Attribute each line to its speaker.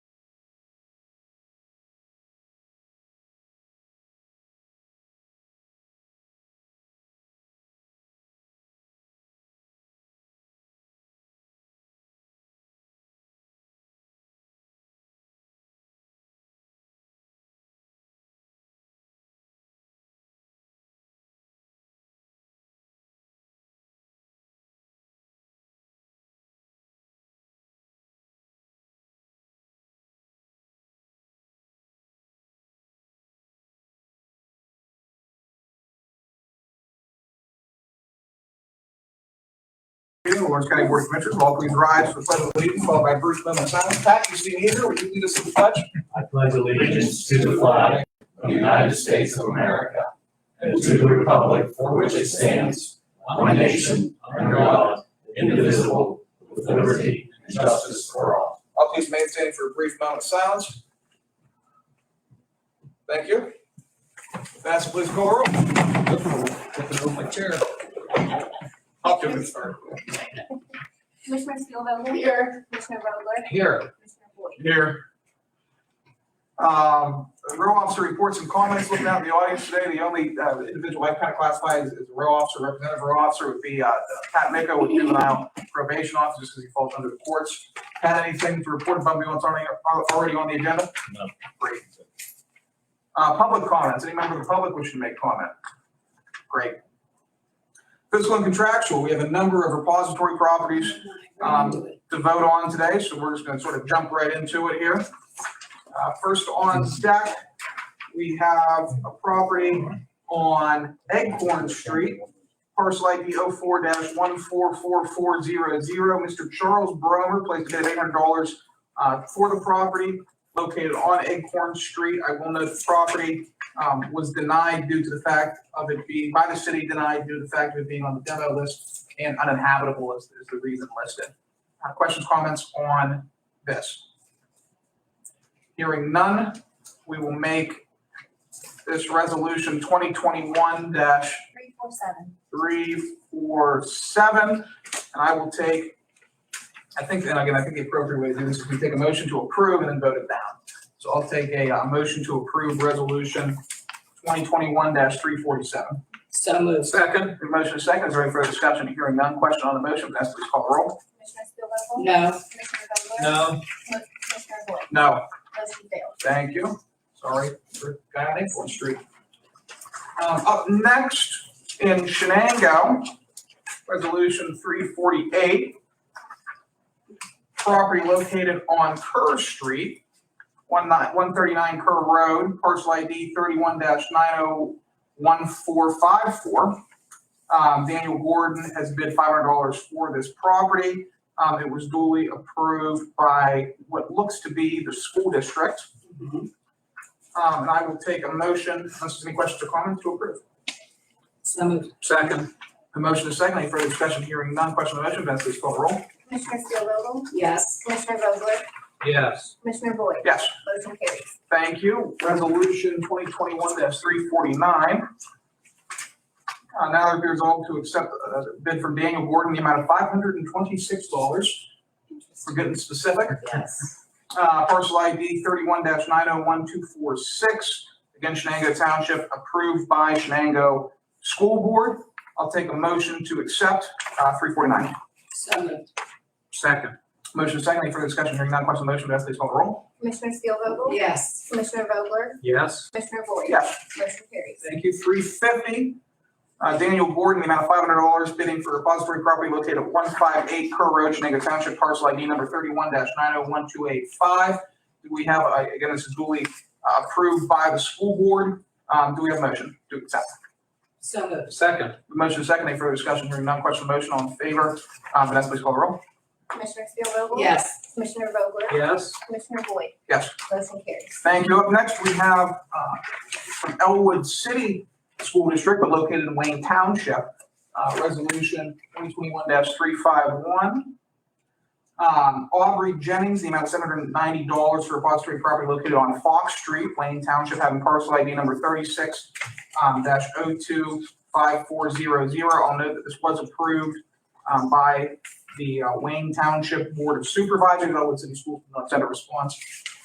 Speaker 1: Here, Lawrence County Board of Commissioners, all please rise for the pledge of allegiance, followed by Bruce Miller. Simon, Pat, you see here, will you lead us in the pledge?
Speaker 2: I pledge allegiance to the flag of the United States of America and to the republic for which it stands, one nation, under God, indivisible, with liberty and justice for all.
Speaker 1: I'll please maintain for a brief moment of silence. Thank you. That's please go roll. Move my chair. I'll give it a start.
Speaker 3: Commissioner Steelvogel? Here. Commissioner Vogler?
Speaker 1: Here.
Speaker 3: Commissioner Boyd?
Speaker 1: Here. Um, row officer reports and comments, looking out in the audience today, the only uh, individual I kind of classify as as a row officer, representative row officer would be uh, Pat Miko with juvenile probation officer, just because he falls under the courts. Pat, anything to report about me what's already, already on the agenda?
Speaker 2: No.
Speaker 1: Great. Uh, public comments, any member of the public wishing to make comment? Great. Fiscal and contractual, we have a number of repository properties, um, to vote on today, so we're just gonna sort of jump right into it here. Uh, first on deck, we have a property on Eggcorn Street, parcel ID 4 one four four four zero zero. Mr. Charles Bromer placed a bid of eight hundred dollars, uh, for the property located on Acorn Street. I will note the property, um, was denied due to the fact of it being, by the city denied due to the fact of it being on the demo list and uninhabitable is, is the reason listed. Uh, Questions, comments on this? Hearing none, we will make this resolution twenty twenty-one dash
Speaker 3: Three, four, seven.
Speaker 1: three, four, seven, and I will take, I think, and again, I think the appropriate way to do this is we take a motion to approve and then vote it down. So I'll take a, uh motion to approve resolution twenty twenty-one three forty-seven.
Speaker 4: So moved.
Speaker 1: Second. Motion is second, is there any further discussion? Hearing none, question on the motion, Vanessa, please call the roll.
Speaker 3: Commissioner Steelvogel?
Speaker 4: No.
Speaker 3: Commissioner Vogler?
Speaker 1: No. No.
Speaker 3: Com- Commissioner Boyd? Motion failed.
Speaker 1: Thank you. Sorry, for guy on Acorn Street. Um, up next in Shenango, resolution three forty-eight. Property located on Kerr Street, one nine, one thirty-nine Kerr Road, parcel ID thirty-one nine oh one four five four. Um, Daniel Gordon has bid five hundred dollars for this property. Um, it was duly approved by what looks to be the school district. Um, and I will take a motion, unless there's any questions or comments, to approve.
Speaker 4: So moved.
Speaker 1: Second. The motion is second. Any further discussion? Hearing none. Question on the motion, Vanessa, please call the roll.
Speaker 3: Commissioner Steelvogel?
Speaker 4: Yes.
Speaker 3: Commissioner Vogler?
Speaker 1: Yes.
Speaker 3: Commissioner Boyd?
Speaker 1: Yes.
Speaker 3: Motion carries.
Speaker 1: Thank you. Resolution twenty twenty-one three forty-nine. Uh, now it appears all to accept a bid from Daniel Gordon, the amount of five hundred and twenty-six dollars, for getting specific.
Speaker 4: Yes.
Speaker 1: Uh, parcel ID thirty-one nine oh one two four six. Again, Shenango Township approved by Shenango School Board. I'll take a motion to accept, uh, three forty-nine.
Speaker 4: So moved.
Speaker 1: Second. Motion second, any further discussion, hearing none, question on the motion, Vanessa, please call the roll.
Speaker 3: Commissioner Steelvogel?
Speaker 4: Yes.
Speaker 3: Commissioner Vogler?
Speaker 1: Yes.
Speaker 3: Commissioner Boyd?
Speaker 1: Yes.
Speaker 3: Motion carries.
Speaker 1: Thank you. Three fifty. Uh, Daniel Gordon, the amount of five hundred dollars bidding for repository property located at one five eight Kerr Road, Shenango Township, parcel ID number thirty-one nine oh one two eight five. Do we have, uh, again, this is duly uh, approved by the school board. Um, do we have a motion to accept?
Speaker 4: So moved.
Speaker 1: Second. Motion is second. Any further discussion? Hearing none, question on the motion, all in favor? Uh, Vanessa, please call the roll.
Speaker 3: Commissioner Steelvogel?
Speaker 4: Yes.
Speaker 3: Commissioner Vogler?
Speaker 1: Yes.
Speaker 3: Commissioner Boyd?
Speaker 1: Yes.
Speaker 3: Motion carries.
Speaker 1: Thank you. Up next, we have uh, from Elwood City School District, but located in Wayne Township, uh, Resolution 2021-351. Um, Aubrey Jennings, the amount of $790 for repository property located on Fox Street, Wayne Township, having parcel ID number 36 um, dash 025400. I'll note that this was approved um, by the uh, Wayne Township Board of Supervisors. Elwood City School did not send a response